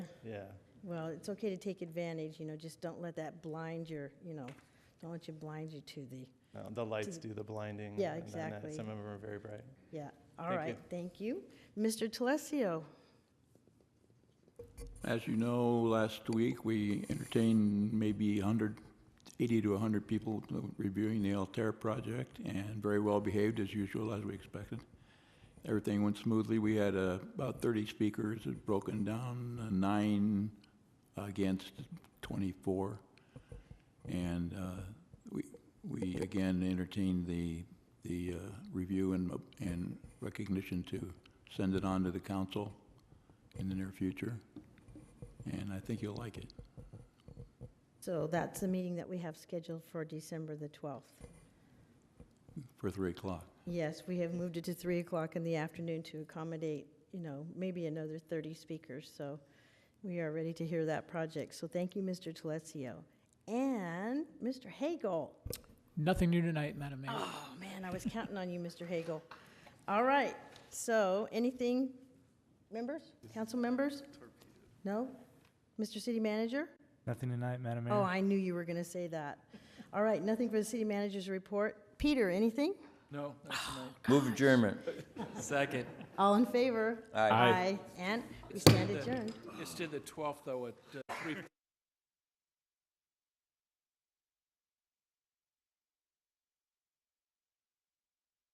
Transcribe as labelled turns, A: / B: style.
A: yeah.
B: Well, it's okay to take advantage, you know, just don't let that blind your, you know, don't let you blind you to the,
A: No, The lights do the blinding.
B: Yeah,
A: and then, uh,
B: exactly.
A: Some of them are very bright.
B: yeah. All
A: Thank
B: right, thank you. Mr. Telesio,
C: As you know, last week, we entertained maybe 180 to 100 people reviewing the Altair project, and very well behaved as usual, as we expected. Everything went smoothly. We had uh, about 30 speakers, it broken down, uh, nine against 24. And uh, we, we again entertained the, the uh, review and, and recognition to send it on to the council in the near future and I think you'll like it.
B: so that's the meeting that we have scheduled for December the 12th.
C: For three o'clock.
B: Yes, we have moved it to 3 o'clock in the afternoon to accommodate, you know, maybe another 30 speakers, so we are ready to hear that project. So thank you, Mr. Telesio. And Mr. Hagel.
D: Nothing new tonight, Madam Mayor.
B: Oh, man, I was counting on you, Mr. Hagel. All right, so anything, members, council members? No? Mr. City Manager?
E: Nothing tonight, Madam Mayor.
B: Oh, I knew you were going to say that. All right, nothing for the city manager's report. Peter, anything? Oh,
C: No,
F: Move adjournment.
G: Second.
B: All in favor?
F: Aye.
B: Aye, and we stand adjourned.
G: It's to the 12th, though, at uh, 3